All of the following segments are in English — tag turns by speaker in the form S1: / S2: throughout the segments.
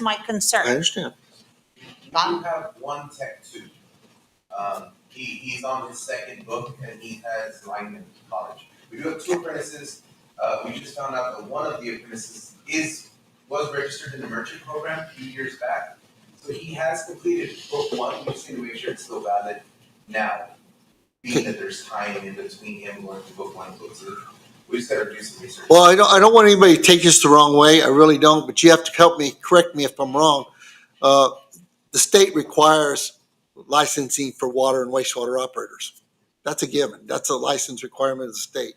S1: my
S2: I
S1: concern.
S2: understand.
S3: We have one tech two. Um, he, he's on his second book and he has Lyman College. We do have two apprentices. Uh, we just found out that one of the apprentices is, was registered in the merchant program a few years back. So he has completed book one, we just need to make sure it's still valid now. Being that there's time in between him going to book one and book two. We just gotta do some research.
S2: Well, I don't, I don't want anybody to take this the wrong way. I really don't, but you have to help me, correct me if I'm wrong. Uh, The state requires licensing for water and wastewater operators. That's a given. That's a license requirement of the state.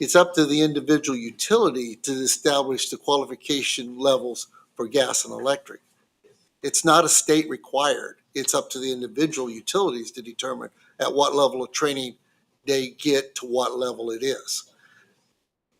S2: It's up to the individual utility to establish the qualification levels for gas and electric. It's not a state required. It's up to the individual utilities to determine at what level of training they get to what level it is.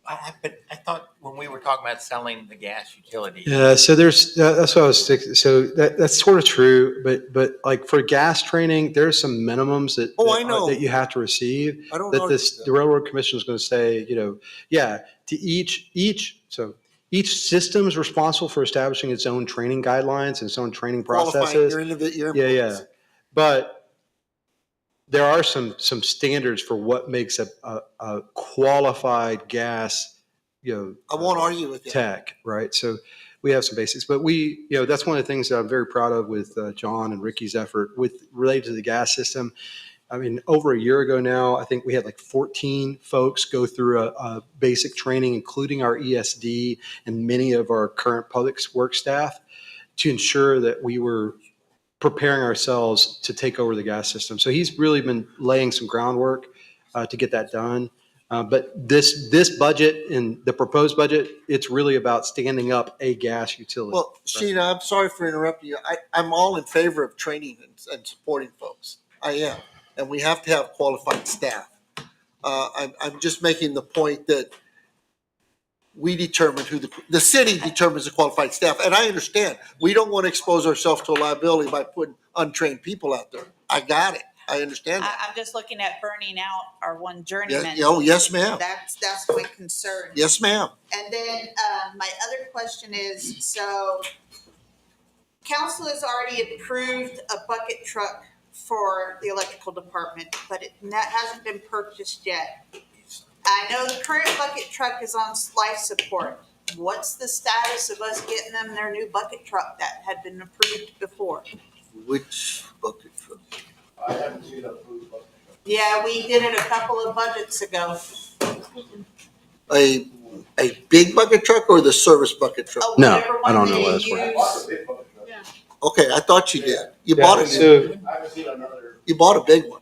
S4: I, I, but I thought when we were talking about selling the gas utility,
S5: Yeah, so there's that- that's what I was thinking. So that, that's sort of true, but but like for gas training, there's some minimums that
S2: Oh,
S5: that,
S2: I
S5: are-
S2: know.
S5: that you have to receive.
S2: I don't
S5: That
S2: know.
S5: this the railroad commission is going to say, you know, yeah, to each each so each system is responsible for establishing its own training guidelines and its own training
S2: qualifying
S5: processes.
S2: your individ- your
S5: Yeah, yeah,
S2: employees.
S5: but there are some some standards for what makes a a, a qualified gas, you know,
S2: I won't argue with you.
S5: tech, right? So we have some basics, but we, you know, that's one of the things that I'm very proud of with uh, John and Ricky's effort with related to the gas system. I mean, over a year ago now, I think we had like 14 folks go through a, a basic training, including our ESD and many of our current public work staff, to ensure that we were preparing ourselves to take over the gas system. So he's really been laying some groundwork uh, to get that done. Uh, But this, this budget and the proposed budget, it's really about standing up a gas utility.
S2: Well, Sheena, I'm sorry for interrupting you. I, I'm all in favor of training and, and supporting folks. I am. And we have to have qualified staff. Uh, I'm, I'm just making the point that we determine who the, the city determines the qualified staff. And I understand, we don't want to expose ourselves to a liability by putting untrained people out there. I got it. I understand that.
S1: I, I'm just looking at burning out our one
S2: Yeah,
S1: journeyman.
S2: oh, yes, ma'am.
S6: That's, that's my concern.
S2: Yes, ma'am.
S6: And then, uh, my other question is, so council has already approved a bucket truck for the electrical department, but it, that hasn't been purchased yet. I know the current bucket truck is on life support. What's the status of us getting them their new bucket truck that had been approved before?
S2: Which bucket truck?
S3: I haven't seen approved book.
S6: Yeah, we did it a couple of budgets ago.
S2: A, a big bucket truck or the service bucket truck?
S6: Oh,
S5: No,
S6: whatever
S5: I
S6: one
S5: don't know
S6: they
S5: what it's worth.
S6: use.
S2: Okay, I thought you did. You
S5: Yeah,
S2: bought it.
S5: So,
S3: I haven't seen another. Oh,
S2: You bought a big one.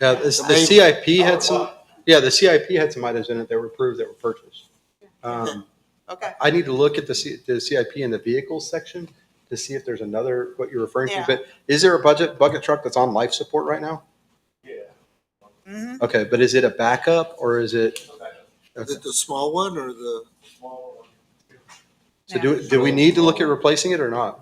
S5: yeah, this- the
S2: Amazing.
S5: CIP had some, yeah, the CIP had some items in it that were approved that were purchased. Um,
S6: Okay,
S5: I need to look at the C, the CIP in the vehicles section to see if there's another, what you're referring to.
S6: Yeah.
S5: But is there a budget, bucket truck that's on life support right now?
S1: Mhm.
S5: Okay, but is it a backup or is it?
S2: Is it the small one or the?
S5: So do, do we need to look at replacing it or not?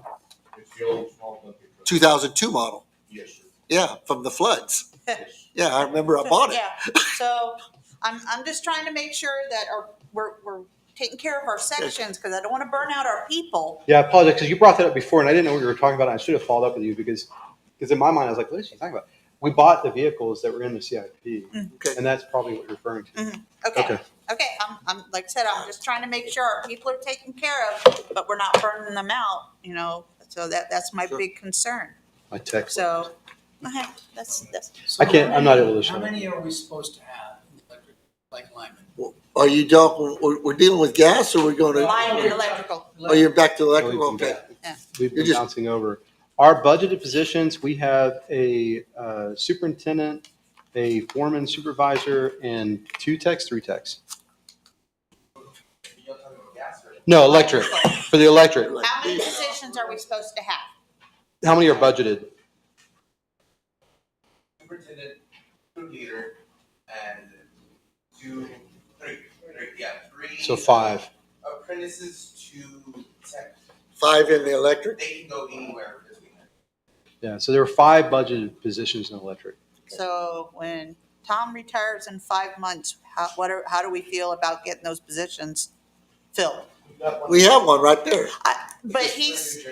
S2: Two thousand two model.
S3: Yes, sir.
S2: Yeah, from the floods.
S3: Yes.
S2: Yeah, I remember I bought it.
S6: yeah, so I'm, I'm just trying to make sure that our, we're, we're taking care of our sections, cause I don't wanna burn out our people.
S5: Yeah, I apologize because you brought that up before and I didn't know what you were talking about. and I should have followed up with you because, because in my mind, I was like, what is she talking about? We bought the vehicles that were in the CIP
S2: Okay,
S5: and that's probably what you're referring to.
S6: Okay,
S5: Okay.
S6: okay, I'm, I'm, like I said, I'm just trying to make sure our people are taken care of, but we're not burning them out, you know? So that, that's my
S2: Sure.
S6: big concern,
S5: My text.
S6: so, okay, that's, that's,
S5: I can't- I'm not able to show
S7: How
S5: it.
S7: many are we supposed to have, electric, like Lyman?
S2: are you talking, we're, we're dealing with gas or we're gonna,
S6: line and electrical,
S2: oh, you're back to electric,
S5: Electric.
S2: okay.
S5: We've
S2: You're
S5: been
S2: just-
S5: bouncing over. Our budgeted positions, we have a uh, superintendent, a foreman supervisor, and two techs, three techs.
S3: You're talking about gas right?
S5: No, electric, for the electric.
S6: how many positions are we supposed to have?
S5: How many are budgeted?
S3: Superintendent, two leader, and two, three, three, yeah, three.
S5: So five.
S3: Apprentices to tech,
S2: Five in the electric?
S3: they can go anywhere between that.
S5: Yeah, so there are five budgeted positions in electric.
S6: So when Tom retires in five months, how, what are, how do we feel about getting those positions filled?
S2: We have one right there.
S6: I- But he's,